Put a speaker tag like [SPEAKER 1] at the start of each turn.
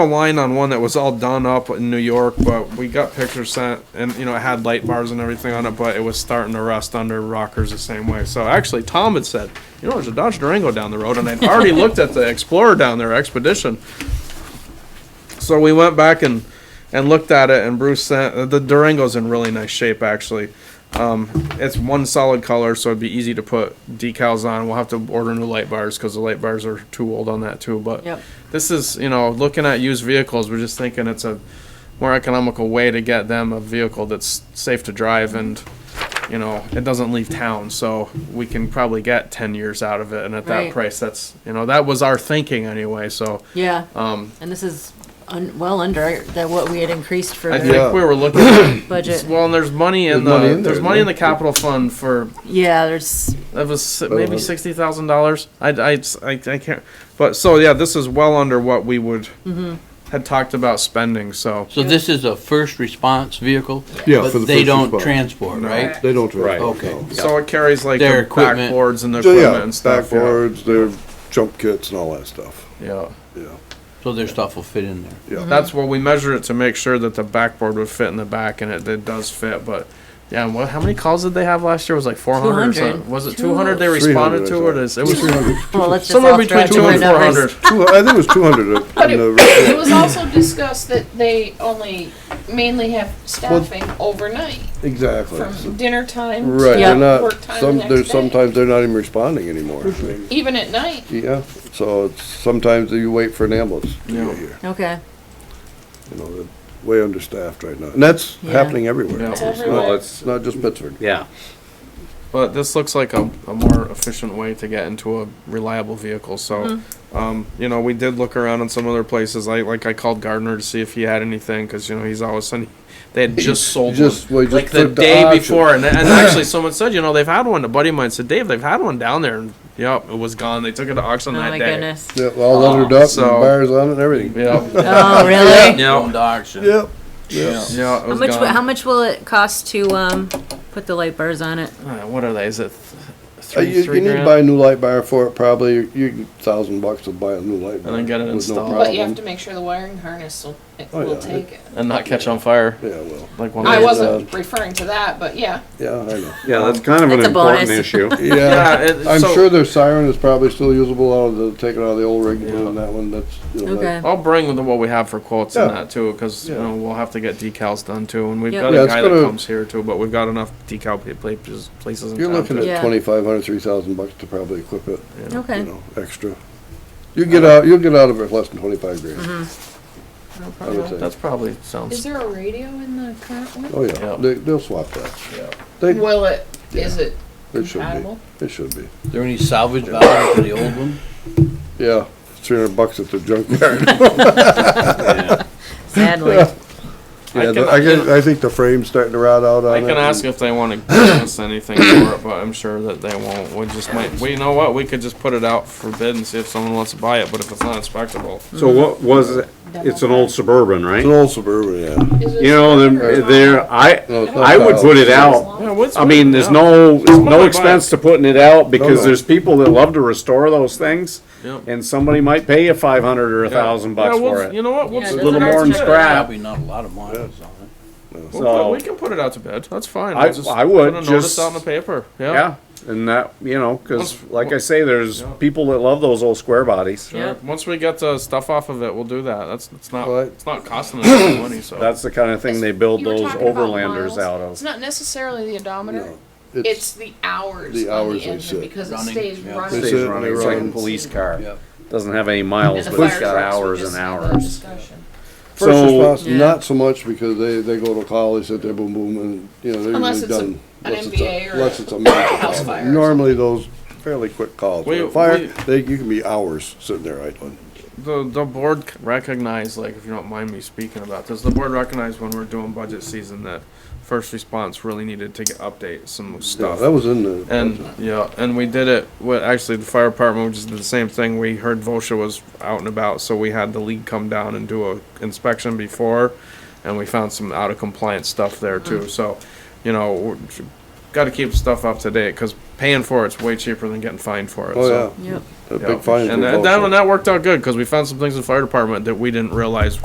[SPEAKER 1] a line on one that was all done up in New York, but we got pictures sent, and you know it had light bars and everything on it, but it was starting to rust under rockers the same way. So actually, Tom had said, you know, there's a Dodge Durango down the road, and I'd already looked at the Explorer down there, Expedition. So we went back and and looked at it, and Bruce sent uh, the Durango's in really nice shape actually. Um, it's one solid color, so it'd be easy to put decals on. We'll have to order new light bars because the light bars are too old on that too. But
[SPEAKER 2] Yep.
[SPEAKER 1] this is, you know, looking at used vehicles, we're just thinking it's a more economical way to get them a vehicle that's safe to drive and, you know, it doesn't leave town. So we can probably get 10 years out of it. And at that
[SPEAKER 2] Right.
[SPEAKER 1] price, that's, you know, that was our thinking anyway. So,
[SPEAKER 2] Yeah,
[SPEAKER 1] um,
[SPEAKER 2] and this is un- well under that what we had increased for
[SPEAKER 1] I
[SPEAKER 2] the
[SPEAKER 1] think we were looking at,
[SPEAKER 2] budget.
[SPEAKER 1] well, and there's money in
[SPEAKER 3] There's
[SPEAKER 1] the,
[SPEAKER 3] money in there,
[SPEAKER 1] there's money in the
[SPEAKER 3] isn't
[SPEAKER 1] capital fund for
[SPEAKER 2] Yeah, there's
[SPEAKER 1] That was si-
[SPEAKER 3] About
[SPEAKER 1] maybe
[SPEAKER 3] a hundred.
[SPEAKER 1] sixty thousand dollars. I, I, I I can't. But so yeah, this is well under what we would had talked about spending. So
[SPEAKER 4] So this is a first response vehicle?
[SPEAKER 3] Yeah,
[SPEAKER 4] but
[SPEAKER 3] for the
[SPEAKER 4] They
[SPEAKER 3] first
[SPEAKER 4] don't
[SPEAKER 3] response.
[SPEAKER 4] transport, right?
[SPEAKER 3] They don't drive.
[SPEAKER 5] Right.
[SPEAKER 4] Okay.
[SPEAKER 3] no.
[SPEAKER 1] so it carries like
[SPEAKER 4] Their
[SPEAKER 1] the
[SPEAKER 4] equipment.
[SPEAKER 1] backboards and the
[SPEAKER 3] So,
[SPEAKER 1] equipment
[SPEAKER 3] yeah,
[SPEAKER 1] and stuff. yeah.
[SPEAKER 3] backboards, their jump kits and all that stuff,
[SPEAKER 1] Yeah,
[SPEAKER 4] Mm-hmm.
[SPEAKER 3] yeah,
[SPEAKER 4] So their stuff will fit in there.
[SPEAKER 3] yeah.
[SPEAKER 1] that's where we measure it to make sure that the backboard would fit in the back, and it, it does fit. But yeah, and what? How many calls did they have last year? It was like four hundred.
[SPEAKER 2] 200.
[SPEAKER 1] Was it two hundred they
[SPEAKER 3] 300,
[SPEAKER 1] responded to? Or
[SPEAKER 3] I
[SPEAKER 1] it is it was
[SPEAKER 2] well, let's just
[SPEAKER 1] somewhere
[SPEAKER 2] all throw
[SPEAKER 1] between
[SPEAKER 2] out
[SPEAKER 1] two and
[SPEAKER 2] different
[SPEAKER 1] four
[SPEAKER 2] numbers.
[SPEAKER 1] hundred.
[SPEAKER 3] Two, I think it was two hundred in
[SPEAKER 6] But it,
[SPEAKER 3] the
[SPEAKER 6] it
[SPEAKER 3] report.
[SPEAKER 6] was also discussed that they only mainly have staffing overnight
[SPEAKER 3] Exactly.
[SPEAKER 6] from dinner time
[SPEAKER 3] Right,
[SPEAKER 2] Yeah.
[SPEAKER 3] they're
[SPEAKER 6] to
[SPEAKER 3] not,
[SPEAKER 6] work time
[SPEAKER 3] some,
[SPEAKER 6] the
[SPEAKER 3] they're,
[SPEAKER 6] next day.
[SPEAKER 3] sometimes they're not even responding anymore. I mean,
[SPEAKER 6] Even at night.
[SPEAKER 3] Yeah, so it's, sometimes you wait for an ambulance to
[SPEAKER 1] Yeah.
[SPEAKER 3] get here,
[SPEAKER 2] Okay,
[SPEAKER 3] you know, they're way understaffed right now. And that's
[SPEAKER 2] Yeah.
[SPEAKER 3] happening everywhere.
[SPEAKER 1] Yeah.
[SPEAKER 3] It's
[SPEAKER 1] It's
[SPEAKER 3] not,
[SPEAKER 6] everywhere.
[SPEAKER 3] it's not just Pittsburgh.
[SPEAKER 5] Yeah.
[SPEAKER 1] But this looks like a, a more efficient way to get into a reliable vehicle. So, um, you know, we did look around in some other places. I like I called Gardner to see if he had anything because you know he's always sending. They had just sold
[SPEAKER 3] Just,
[SPEAKER 1] one.
[SPEAKER 3] well, you just
[SPEAKER 1] Like the
[SPEAKER 3] put the
[SPEAKER 1] day
[SPEAKER 3] option.
[SPEAKER 1] before, and, and actually, someone said, you know, they've had one. A buddy of mine said, Dave, they've had one down there, and yep, it was gone. They took it to auction
[SPEAKER 2] oh
[SPEAKER 1] that
[SPEAKER 2] my
[SPEAKER 1] day.
[SPEAKER 2] goodness.
[SPEAKER 3] Yeah, all lettered up, and
[SPEAKER 1] Oh, So-
[SPEAKER 3] bars on it and everything.
[SPEAKER 1] Yep.
[SPEAKER 2] Oh, really?
[SPEAKER 4] Going to auction.
[SPEAKER 3] Yep,
[SPEAKER 1] yeah. It
[SPEAKER 2] How
[SPEAKER 1] was
[SPEAKER 2] much, wi-
[SPEAKER 1] gone.
[SPEAKER 2] how much will it cost to, um, put the light bars on it?
[SPEAKER 1] Uh, what are they? Is it th-
[SPEAKER 3] Uh,
[SPEAKER 1] three,
[SPEAKER 3] you,
[SPEAKER 1] three
[SPEAKER 3] you need to
[SPEAKER 1] grand?
[SPEAKER 3] buy a new light bar for it, probably, you, you, thousand bucks to buy a new light bar.
[SPEAKER 1] then get it
[SPEAKER 3] with no
[SPEAKER 1] installed.
[SPEAKER 6] But you have
[SPEAKER 3] problem.
[SPEAKER 6] to make sure the wiring harness will, it
[SPEAKER 3] Oh,
[SPEAKER 6] will
[SPEAKER 3] yeah.
[SPEAKER 6] take it.
[SPEAKER 1] and not catch on fire
[SPEAKER 3] Yeah, well,
[SPEAKER 1] like one. of
[SPEAKER 6] I
[SPEAKER 1] those-
[SPEAKER 3] uh,
[SPEAKER 6] wasn't referring to that, but yeah.
[SPEAKER 3] yeah, I know.
[SPEAKER 5] Yeah, that's kind of
[SPEAKER 2] That's
[SPEAKER 5] an
[SPEAKER 2] a bonus.
[SPEAKER 5] important issue.
[SPEAKER 3] Yeah,
[SPEAKER 1] Yeah, it,
[SPEAKER 3] I'm
[SPEAKER 1] so-
[SPEAKER 3] sure their siren is probably still usable out of the, taken out of the old rig, and that one, that's, you know,
[SPEAKER 2] Okay.
[SPEAKER 3] that-
[SPEAKER 1] I'll bring the, what we have for quotes and
[SPEAKER 3] Yeah.
[SPEAKER 1] that too, because you
[SPEAKER 3] Yeah.
[SPEAKER 1] know we'll have to get decals done too, and we've
[SPEAKER 2] Yep.
[SPEAKER 1] got
[SPEAKER 3] Yeah,
[SPEAKER 1] a
[SPEAKER 3] it's
[SPEAKER 1] guy that
[SPEAKER 3] gonna-
[SPEAKER 1] comes here too, but we've got enough decal pla- places places in
[SPEAKER 3] you're
[SPEAKER 1] town
[SPEAKER 3] looking
[SPEAKER 1] to-
[SPEAKER 3] at
[SPEAKER 2] Yeah.
[SPEAKER 3] twenty-five hundred, three thousand bucks to probably equip it. you
[SPEAKER 2] Okay,
[SPEAKER 3] know, extra. You get
[SPEAKER 1] Uh-huh.
[SPEAKER 3] out, you'll get out of it less than twenty-five grand.
[SPEAKER 2] Mm-hmm.
[SPEAKER 3] I would say.
[SPEAKER 1] That's probably
[SPEAKER 6] Is
[SPEAKER 1] sounds.
[SPEAKER 6] there a radio in the current one?
[SPEAKER 3] Oh, yeah,
[SPEAKER 1] Yeah.
[SPEAKER 3] they, they'll swap that.
[SPEAKER 1] Yeah.
[SPEAKER 3] They,
[SPEAKER 6] Will it, is it
[SPEAKER 3] it should
[SPEAKER 6] compatible?
[SPEAKER 3] be, it should be.
[SPEAKER 4] Is there any salvage value for the old one?
[SPEAKER 3] Yeah, three hundred bucks at the junkyard.
[SPEAKER 2] sadly.
[SPEAKER 3] Yeah,
[SPEAKER 1] I
[SPEAKER 3] the-
[SPEAKER 1] can,
[SPEAKER 3] I can, I think the frame's starting to rot out on
[SPEAKER 1] I
[SPEAKER 3] it.
[SPEAKER 1] can ask if they want to give us anything for it, but I'm sure that they won't. We just might. We you know what? We could just put it out for bid and see if someone wants to buy it. But if it's not inspectable,
[SPEAKER 5] So what was, it? it's an old Suburban,
[SPEAKER 3] It's an
[SPEAKER 5] right?
[SPEAKER 3] old Suburban, yeah.
[SPEAKER 6] Is it
[SPEAKER 5] You know,
[SPEAKER 6] or-
[SPEAKER 5] then there, I,
[SPEAKER 3] No, it's not
[SPEAKER 5] I would put it out.
[SPEAKER 1] yeah, what's
[SPEAKER 5] I mean, there's no, there's no expense to putting it out because there's people that love to restore those things.
[SPEAKER 1] Yep.
[SPEAKER 5] And somebody might pay you five hundred or a thousand bucks for
[SPEAKER 1] You
[SPEAKER 5] it.
[SPEAKER 1] know what? We'll
[SPEAKER 2] Yeah,
[SPEAKER 1] put
[SPEAKER 2] A
[SPEAKER 1] it
[SPEAKER 5] little
[SPEAKER 1] out
[SPEAKER 5] more
[SPEAKER 1] to
[SPEAKER 5] than
[SPEAKER 1] bid.
[SPEAKER 5] scrap.
[SPEAKER 4] Probably not a lot of miles on it.
[SPEAKER 1] We'll
[SPEAKER 5] So-
[SPEAKER 1] put- we can put it out to bid. That's fine.
[SPEAKER 5] I-
[SPEAKER 1] We'll just
[SPEAKER 5] I would,
[SPEAKER 1] put a notice
[SPEAKER 5] just-
[SPEAKER 1] out in the paper.
[SPEAKER 5] Yeah, and that, you know, cause
[SPEAKER 1] Once-
[SPEAKER 5] like I say, there's
[SPEAKER 1] Yeah.
[SPEAKER 5] people that love those old square bodies.
[SPEAKER 1] Sure.
[SPEAKER 2] Yeah.
[SPEAKER 1] Once we get the stuff off of it, we'll do that. That's it's not
[SPEAKER 3] Right.
[SPEAKER 1] it's not costing us any money. So
[SPEAKER 5] That's the kinda thing they build
[SPEAKER 6] You were
[SPEAKER 5] those
[SPEAKER 6] talking about
[SPEAKER 5] overlanders
[SPEAKER 6] miles.
[SPEAKER 5] out
[SPEAKER 6] It's
[SPEAKER 5] of.
[SPEAKER 6] not necessarily the odometer, it's
[SPEAKER 3] It's,
[SPEAKER 6] the hours
[SPEAKER 3] The
[SPEAKER 6] on
[SPEAKER 3] hours
[SPEAKER 6] the
[SPEAKER 3] they
[SPEAKER 6] engine
[SPEAKER 3] sit.
[SPEAKER 6] because it
[SPEAKER 4] Running,
[SPEAKER 6] stays
[SPEAKER 4] yeah.
[SPEAKER 6] running.
[SPEAKER 3] They
[SPEAKER 5] Stays
[SPEAKER 3] sit,
[SPEAKER 5] running,
[SPEAKER 3] they
[SPEAKER 5] it's like a
[SPEAKER 3] run.
[SPEAKER 5] police car.
[SPEAKER 4] Yep.
[SPEAKER 5] Doesn't have any
[SPEAKER 6] And
[SPEAKER 5] miles,
[SPEAKER 6] the
[SPEAKER 5] but it's
[SPEAKER 6] fire
[SPEAKER 5] got
[SPEAKER 6] trucks, we
[SPEAKER 5] hours
[SPEAKER 6] just
[SPEAKER 5] and
[SPEAKER 6] had that
[SPEAKER 5] hours.
[SPEAKER 6] discussion.
[SPEAKER 3] first
[SPEAKER 5] So-
[SPEAKER 3] response,
[SPEAKER 2] Yeah.
[SPEAKER 3] not so much, because they, they go to call, they sit there, boom, boom, and, you know, they're
[SPEAKER 6] Unless
[SPEAKER 3] usually
[SPEAKER 6] it's a-
[SPEAKER 3] done.
[SPEAKER 6] an
[SPEAKER 3] Unless it's a-
[SPEAKER 6] MVA or
[SPEAKER 3] Unless
[SPEAKER 6] a
[SPEAKER 3] it's a major
[SPEAKER 6] house
[SPEAKER 3] problem.
[SPEAKER 6] fire or
[SPEAKER 3] Normally, those fairly quick calls,
[SPEAKER 1] We-
[SPEAKER 3] With a fire,
[SPEAKER 1] we-
[SPEAKER 3] they, you can be hours sitting there idling.
[SPEAKER 1] the the board c- recognize like if you don't mind me speaking about this, the board recognized when we're doing budget season that first response really needed to get update some
[SPEAKER 3] Yeah,
[SPEAKER 1] stuff.
[SPEAKER 3] that was in the.
[SPEAKER 1] and yeah, and we did it. What actually the fire department we just did the same thing. We heard Vosha was out and about, so we had the league come down and do a inspection before, and we found some out of compliance stuff there
[SPEAKER 3] Mm-hmm.
[SPEAKER 1] too. So, you know, got to keep stuff up to date because paying for it's way cheaper than getting fined for it.
[SPEAKER 3] Oh,
[SPEAKER 1] so.
[SPEAKER 3] yeah.
[SPEAKER 2] Yep,
[SPEAKER 3] a big fine.
[SPEAKER 1] And that, that one, that worked out good, cause we found some things in the fire department that we didn't realize